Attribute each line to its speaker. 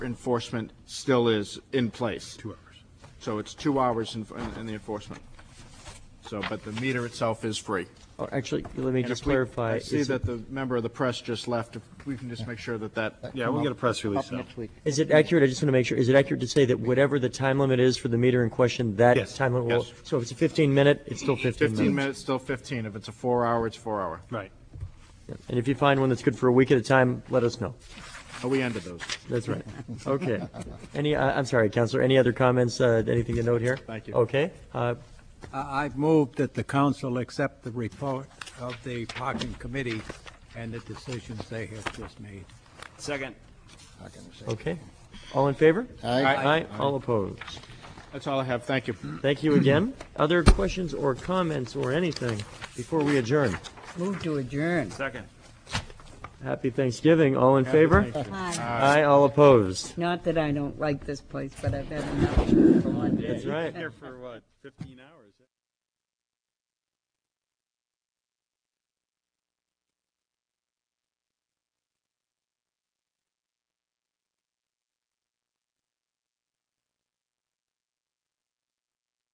Speaker 1: enforcement still is in place.
Speaker 2: Two hours.
Speaker 1: So it's two hours in, in the enforcement. So, but the meter itself is free.
Speaker 3: Oh, Actually, let me
Speaker 1: And
Speaker 3: just
Speaker 1: if we-
Speaker 3: clarify.
Speaker 1: I see
Speaker 3: is it-
Speaker 1: that the member of the press just left. If we can just make sure that that.
Speaker 2: Yeah, we'll get a press release
Speaker 4: Up
Speaker 2: out.
Speaker 4: next week.
Speaker 3: Is it accurate, I just want to make sure, is it accurate to say that whatever the time limit is for the meter in question, that
Speaker 2: Yes,
Speaker 3: time limit will?
Speaker 2: yes.
Speaker 3: So if it's a 15-minute, it's still 15
Speaker 1: Fifteen
Speaker 3: minutes?
Speaker 1: minutes, still fifteen. If it's a four hour, it's four hour.
Speaker 2: Right.
Speaker 3: And if you find one that's good for a week at a time, let us know.
Speaker 1: Oh, We ended those.
Speaker 3: That's right. Okay. Any, I- I'm sorry, Counselor, any other comments, uh, anything to note here?
Speaker 1: Thank you.
Speaker 3: Okay. Uh,
Speaker 5: I- I've moved that the council accept the report of the parking committee and the decisions they have just made.
Speaker 6: Second.
Speaker 4: Not gonna say.
Speaker 3: Okay. All in favor?
Speaker 4: Aye.
Speaker 3: Aye. All opposed?
Speaker 1: That's all I have. Thank you.
Speaker 3: Thank you again. Other questions or comments or anything before we adjourn?
Speaker 4: Move to adjourn.
Speaker 6: Second.
Speaker 3: Happy Thanksgiving. All in favor?
Speaker 4: Hi.
Speaker 3: Aye. All opposed?
Speaker 4: Not that I don't like this place, but I've had enough for one day.
Speaker 3: That's right.
Speaker 6: for what, 15 hours?